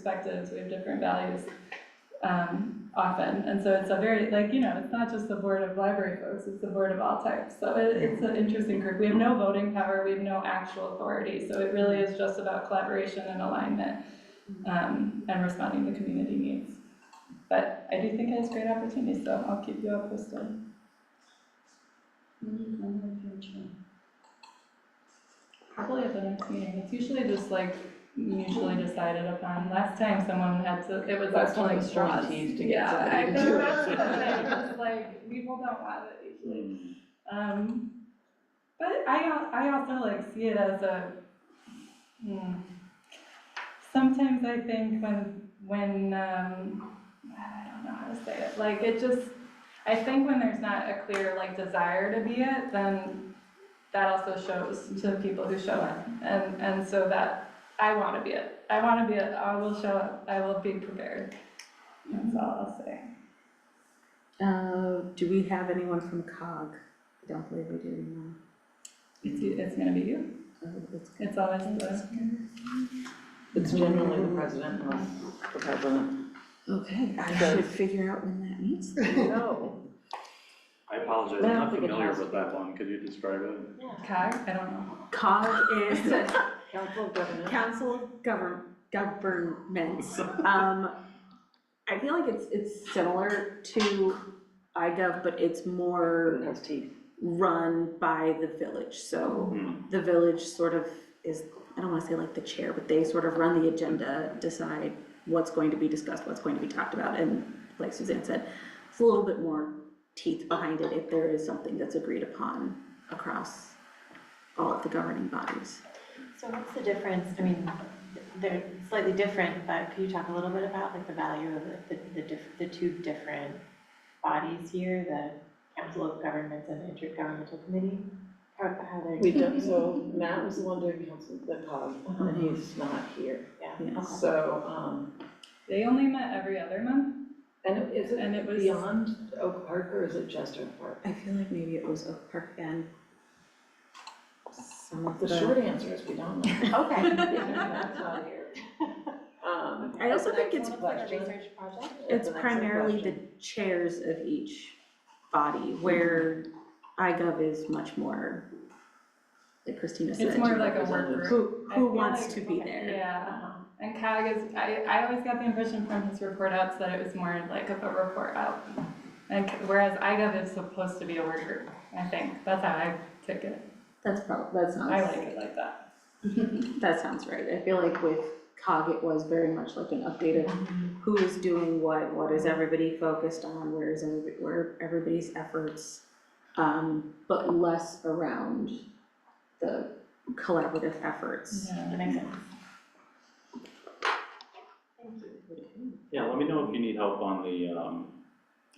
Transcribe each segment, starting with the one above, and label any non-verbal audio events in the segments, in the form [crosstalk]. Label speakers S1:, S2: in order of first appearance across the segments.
S1: perspectives, we have different values um, often. And so it's a very, like, you know, it's not just the board of library folks, it's the board of all types. So it, it's an interesting group. We have no voting power, we have no actual authority. So it really is just about collaboration and alignment um, and responding to community needs. But I do think it has great opportunities, so I'll keep you all posted.
S2: We need one more future.
S1: Probably at the next meeting. It's usually just like mutually decided upon. Last time someone had to, it was
S3: Last time it
S1: actually
S3: was
S1: straws.
S3: teased to get somebody to
S1: Yeah, I
S3: do
S1: know,
S3: it.
S1: that's what [laughs] I
S3: [laughs]
S1: was like, people don't want it usually. Um, but I, al- I also like see it as a, hmm, sometimes I think when, when, um, I don't know how to say it, like it just, I think when there's not a clear like desire to be it, then that also shows to the people who show up. And, and so that, I wanna be it, I wanna be it, I will show up, I will be prepared. That's all I'll say.
S3: Uh, do we have anyone from COG? I don't believe we do, no.
S1: It's, you- it's gonna be you,
S3: Oh, it's-
S1: it's always the.
S4: It's generally the president, not the president.
S3: Okay, I
S4: So-
S3: should figure out when that means.
S4: No.
S5: I apologize,
S4: I
S5: I'm
S4: don't
S5: not
S4: think it
S5: familiar
S4: has
S5: with that one, could you describe it?
S1: COG, I don't know.
S3: COG is the
S4: Council of Governors.
S3: Council of Govern, Governments. Um, I feel like it's, it's similar to iGov, but it's more
S4: Has teeth.
S3: run by the village, so
S5: Hmm.
S3: the village sort of is, I don't wanna say like the chair, but they sort of run the agenda, decide what's going to be discussed, what's going to be talked about, and like Suzanne said, it's a little bit more teeth behind it if there is something that's agreed upon across all of the governing bodies.
S2: So what's the difference, I mean, they're slightly different, but could you talk a little bit about like the value of the- the, the diff, the two different bodies here, the Council of Governments and the Intergovernmental Committee? How, how they're.
S4: We don't, so Matt was the one doing council, the cog, and he's not here.
S2: Yeah, okay.
S4: So, um,
S1: They only met every other month.
S4: and is
S1: And it
S4: it
S1: was-
S4: beyond Oak Park or is it just Oak Park?
S3: I feel like maybe it was Oak Park and some of
S4: The short answer is we don't
S2: [laughs]
S4: know. [laughs]
S2: Okay.
S4: Matt's not here. Um,
S3: I also think it's,
S2: Next one looks like a research project.
S4: that's
S3: it's
S4: an excellent
S3: primarily the
S4: question.
S3: chairs of each body, where iGov is much more, like Christina said.
S1: It's more like a work
S4: representatives.
S1: group.
S3: Who,
S1: I
S3: who
S1: feel
S3: wants
S1: like-
S3: to be
S2: okay,
S3: there?
S1: Yeah, and COG is, I, I always got the impression from his report outs that it was more like of a report out. And c- whereas IGov is supposed to be a work group, I think, that's how I took it,
S3: That's probably, that
S1: I like
S3: sounds,
S1: it like that.
S3: that sounds right. I feel like with COG, it was very much like an update of who is doing what, what is everybody focused on, where is everybody, where are everybody's efforts? Um, but less around the collaborative efforts.
S2: That makes sense. Thank you.
S5: Yeah, let me know if you need help on the, um,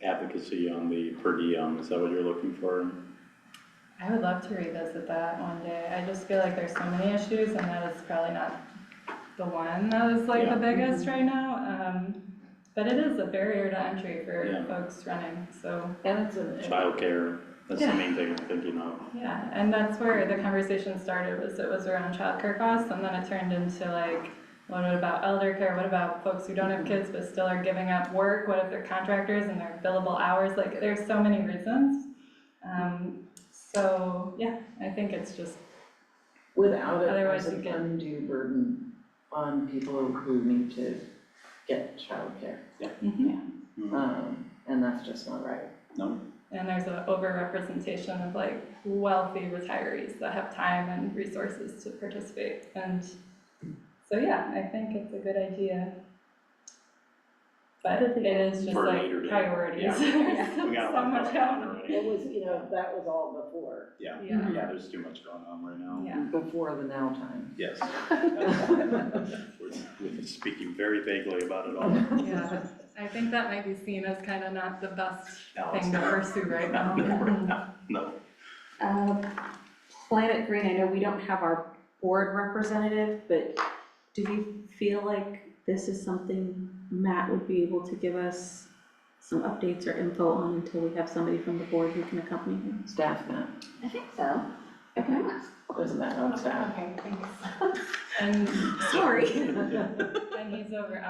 S5: advocacy on the per diem, is that what you're looking for?
S1: I would love to revisit that one day, I just feel like there's so many issues and that is probably not the one that is like the biggest right now, um, but it is a barrier to entry for
S5: Yeah.
S1: folks running, so.
S4: And it's an.
S5: Childcare, that's the
S1: Yeah.
S5: main thing I'm thinking
S1: [laughs]
S5: of.
S1: Yeah, and that's where the conversation started, was it was around childcare costs, and then it turned into like, what about elder care, what about folks who don't have kids but still are giving up work, what if they're contractors and they're billable hours, like, there's so many reasons. Um, so, yeah, I think it's just,
S4: Without it,
S1: Otherwise
S4: there's an
S1: you get-
S4: undue burden on people who need to get childcare.
S1: mhm.
S4: Um, and that's just not right.
S1: and there's an overrepresentation of like wealthy retirees that have time and resources to participate, and so, yeah, I think it's a good idea. But it is just
S5: For
S1: like
S5: later day.
S1: priorities, [laughs]
S5: Yeah.
S1: There's
S5: We got a
S1: so
S5: lot
S1: much
S5: going on
S1: happening.
S5: already.
S4: It was, you know, that was all before,
S5: Yeah,
S1: Yeah,
S5: yeah, there's too much going on right now.
S1: yeah,
S4: before the now time.
S5: Yes.
S1: [laughs]
S4: [laughs]
S5: We're- We're speaking very vaguely about
S1: [laughs]
S5: it all. No,
S1: yeah, I think that might be seen as kind of not the best
S5: it's
S1: thing to
S5: not.
S1: pursue right
S5: [laughs]
S1: now.
S5: No,
S3: Uh, Planet Green, I know we don't have our board representative, but do you feel like this is something Matt would be able to give us some updates or info on until we have somebody from the board who can accompany him?
S4: Staff now,
S3: I think so. Okay,
S4: Okay. isn't that on staff?
S2: Okay, thanks.
S1: And,
S3: [laughs] sorry.
S1: and he's over